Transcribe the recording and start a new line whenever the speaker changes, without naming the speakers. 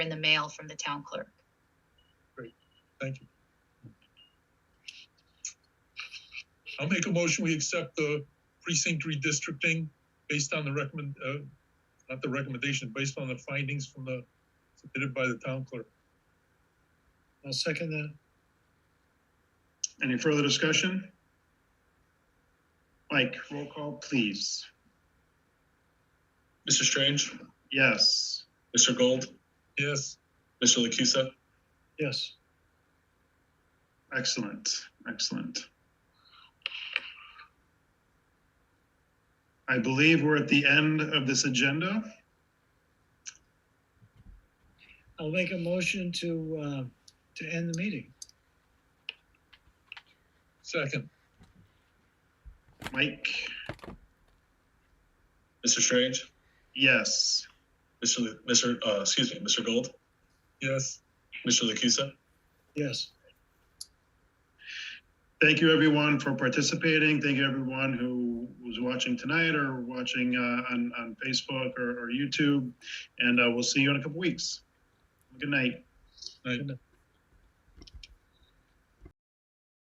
in the mail from the town clerk.
Thank you. I'll make a motion, we accept the precinct redistricting based on the recommend, uh, not the recommendation, based on the findings from the, submitted by the town clerk.
I'll second that. Any further discussion? Mike, roll call, please.
Mr. Strange,
Yes.
Mr. Gold,
Yes,
Mr. Lucusa,
Yes. Excellent, excellent. I believe we're at the end of this agenda.
I'll make a motion to, uh, to end the meeting.
second,
Mike,
Mr. Strange,
yes.
Mr. Lu- Mr. Uh, excuse me, Mr. Gold,
yes.
Mr. Lucusa.
Yes.
Thank you, everyone, for participating. Thank you, everyone who was watching tonight or watching uh, on, on Facebook or, or YouTube. And uh, we'll see you in a couple weeks. Good night.
Right.